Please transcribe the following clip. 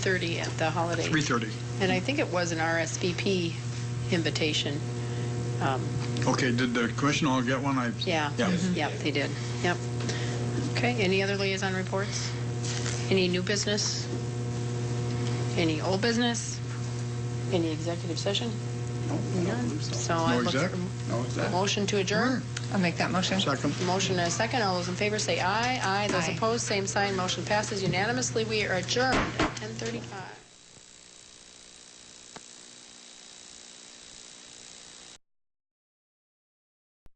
30 at the holiday. 3:30. And I think it was an RSVP invitation. Um, Okay, did the commission all get one? I- Yeah. Mm-hmm. Yeah. Mm-hmm. Yep, they did. Yep. Okay, any other liaison reports? Any new business? Any old business? Any executive session? None. So I No look exec? for No a motion to adjourn. I'll make that motion. Second. Motion and a second. All those in favor say aye. Aye. Those Aye. opposed, same sign. Motion passes unanimously. We are adjourned at 10:35.